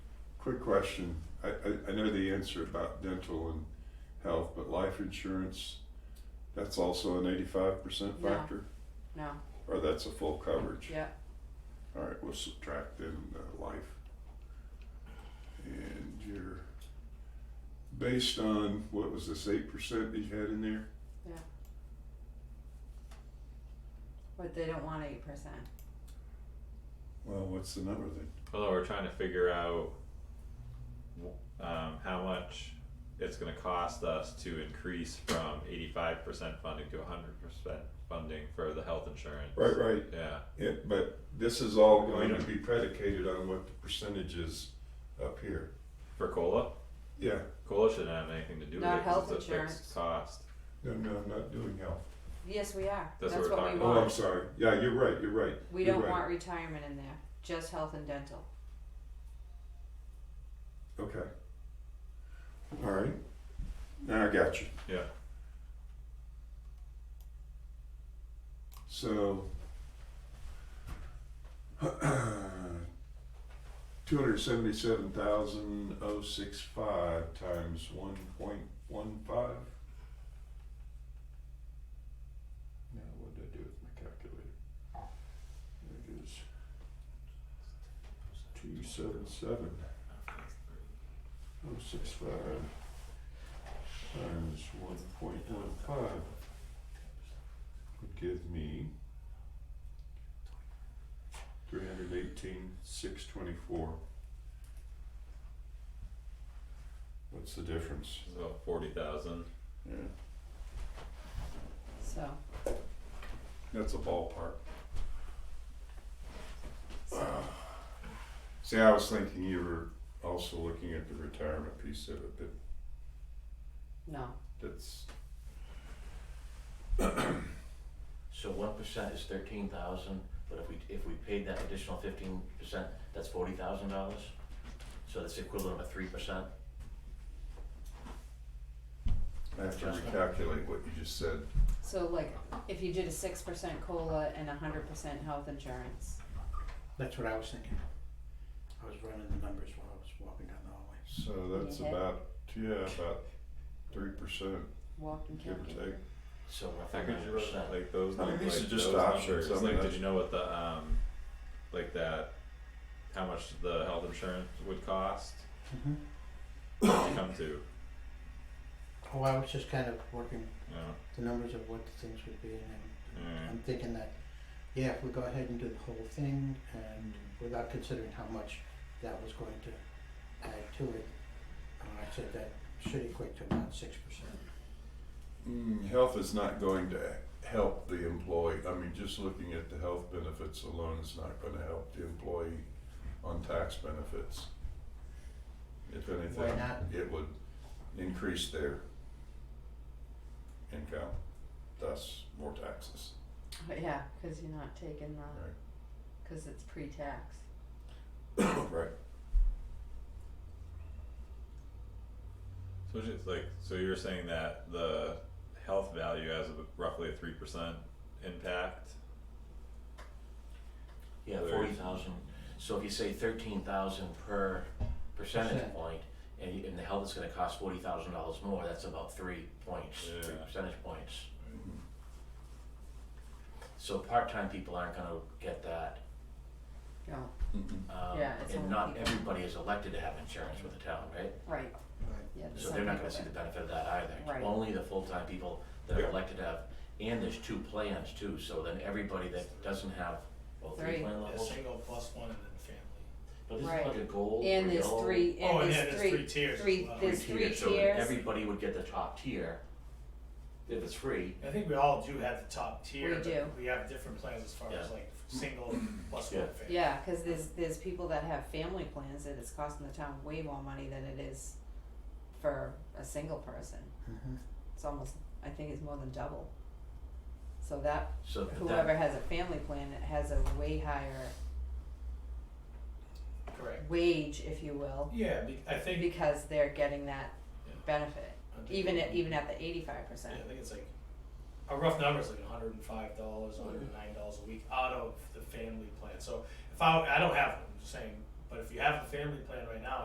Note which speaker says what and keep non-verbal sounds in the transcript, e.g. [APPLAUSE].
Speaker 1: Quick question. I, I, I know the answer about dental and health, but life insurance, that's also an eighty-five percent
Speaker 2: No.
Speaker 1: factor?
Speaker 2: No,
Speaker 1: Or that's a full coverage?
Speaker 2: yeah,
Speaker 1: Alright, we'll subtract then the life. And you're, based on, what was this, eight percent that you had in there?
Speaker 2: but they don't want eight percent.
Speaker 1: Well, what's the number then?
Speaker 3: Although we're trying to figure out wh- um, how much it's going to cost us to increase from 85% funding to 100% funding for the health insurance.
Speaker 1: Right, right.
Speaker 3: Yeah.
Speaker 1: It, but this is all going to be predicated on what the percentage is up here.
Speaker 3: For COLA?
Speaker 1: Yeah,
Speaker 3: COLA shouldn't have anything to do
Speaker 2: Not
Speaker 3: with it 'cause
Speaker 2: health
Speaker 3: it's a
Speaker 2: insurance.
Speaker 3: fixed cost.
Speaker 1: no, no, I'm not doing health.
Speaker 2: Yes, we are.
Speaker 3: That's what
Speaker 2: That's
Speaker 3: we're
Speaker 2: what we
Speaker 3: talking
Speaker 1: Oh, I'm
Speaker 2: want.
Speaker 1: sorry. Yeah, you're right. You're right.
Speaker 2: We
Speaker 1: you're
Speaker 2: don't
Speaker 1: right.
Speaker 2: want retirement in there, just health and dental.
Speaker 1: Okay. All right. Now I got you.
Speaker 3: Yeah.
Speaker 1: So, [CLEARS THROAT] two hundred seventy-seven thousand oh six five times one point one five. Now, what did I do with my calculator? There it is. Two seven seven. Oh, six five times one point one five would give me three hundred eighteen, six twenty-four. What's the difference?
Speaker 3: It's about 40,000.
Speaker 1: Yeah.
Speaker 2: So,
Speaker 1: That's a ballpark. See, I was thinking you were also looking at the retirement piece of it, but
Speaker 2: no,
Speaker 1: that's,
Speaker 4: So one percent is thirteen thousand, but if we, if we paid that additional fifteen percent, that's forty thousand dollars? So that's equivalent of a three percent?
Speaker 1: I have to
Speaker 4: Adjustment.
Speaker 1: recalculate what you just said.
Speaker 2: so like, if you did a six percent COLA and a hundred percent health insurance,
Speaker 5: That's what I was thinking. I was running the numbers while I was walking down the hallway.
Speaker 1: So that's
Speaker 2: Yeah.
Speaker 1: about, yeah, about three percent.
Speaker 2: walk and
Speaker 1: Give or take.
Speaker 2: calculator.
Speaker 4: So
Speaker 3: How
Speaker 4: roughly
Speaker 3: could
Speaker 4: nine
Speaker 3: you run
Speaker 4: percent.
Speaker 3: like those?
Speaker 1: I mean,
Speaker 3: num-
Speaker 1: these
Speaker 3: like
Speaker 1: are just
Speaker 3: those
Speaker 1: options.
Speaker 3: numbers?
Speaker 1: I mean,
Speaker 3: like, did
Speaker 1: that's-
Speaker 3: you know what the um, like that, how much the health insurance would cost? What'd you come to, you
Speaker 5: Oh, I was just kind of working
Speaker 3: know?
Speaker 5: the numbers of what the things would be, and I'm-
Speaker 3: Mm.
Speaker 5: I'm thinking that, yeah, if we go ahead and do the whole thing, and without considering how much that was going to add to it, uh, I said that should equate to about six percent.
Speaker 1: Mm, health is not going to help the employee. I mean, just looking at the health benefits alone is not going to help the employee on tax benefits. If anything,
Speaker 5: Why not?
Speaker 1: it would increase their income, thus more taxes.
Speaker 2: But yeah, cause you're not taking
Speaker 5: Ah.
Speaker 2: the,
Speaker 1: Right.
Speaker 2: cause it's pre-tax.
Speaker 1: right.
Speaker 3: So it's like, so you're saying that the health value has a, roughly a three percent impact?
Speaker 4: Yeah,
Speaker 3: There.
Speaker 4: forty thousand, so if you say thirteen thousand per percentage
Speaker 5: Percent.
Speaker 4: point, and you, and the health is gonna cost forty thousand dollars more, that's about three points, three
Speaker 3: Yeah. Mm-hmm.
Speaker 4: percentage points. So part-time people aren't gonna get that,
Speaker 2: No,
Speaker 1: Mm-hmm.
Speaker 4: um,
Speaker 2: Yeah, it's
Speaker 4: and
Speaker 2: only
Speaker 4: not
Speaker 2: people-
Speaker 4: everybody is elected to have insurance with the town, right?
Speaker 2: right, yeah,
Speaker 4: So
Speaker 2: some
Speaker 4: they're not
Speaker 2: people
Speaker 4: gonna see the
Speaker 2: that-
Speaker 4: benefit of that either,
Speaker 2: Right.
Speaker 4: only the full-time people that
Speaker 1: Yeah.
Speaker 4: are elected to have, and there's two plans too, so then everybody that doesn't have, well, three
Speaker 2: Three.
Speaker 4: plan
Speaker 6: A
Speaker 4: levels.
Speaker 6: single plus one and then family.
Speaker 4: But this is
Speaker 2: Right.
Speaker 4: like a gold or
Speaker 2: And there's
Speaker 4: yellow
Speaker 2: three,
Speaker 6: Oh,
Speaker 2: and
Speaker 6: and yeah,
Speaker 2: there's
Speaker 6: there's
Speaker 2: three,
Speaker 6: three tiers as
Speaker 2: three,
Speaker 6: well.
Speaker 2: there's
Speaker 4: tier,
Speaker 2: three
Speaker 4: so then
Speaker 2: tiers,
Speaker 4: everybody would get the top tier. If it's free,
Speaker 6: I think we all do have the top tier,
Speaker 2: We do.
Speaker 6: but we have different plans as far as
Speaker 4: Yeah.
Speaker 6: like single plus
Speaker 4: Yeah.
Speaker 6: one family.
Speaker 2: yeah, cause there's, there's people that have family plans that it's costing the town way more money than it is for a single person.
Speaker 5: Mhm.
Speaker 2: it's almost I think it's more than double. So that
Speaker 4: so that-
Speaker 2: whoever has a family plan has a way higher
Speaker 6: Correct.
Speaker 2: wage, if you will,
Speaker 6: Yeah, be- I think,
Speaker 2: because they're getting that
Speaker 6: Yeah.
Speaker 2: benefit.
Speaker 6: I think-
Speaker 2: Even at even at the eighty five
Speaker 6: yeah,
Speaker 2: percent.
Speaker 6: I think it's like, a rough number is like hundred and five dollars, hundred and nine dollars a week out of the family plan. So if I, I don't have one, I'm just saying, but if you have a family plan right now,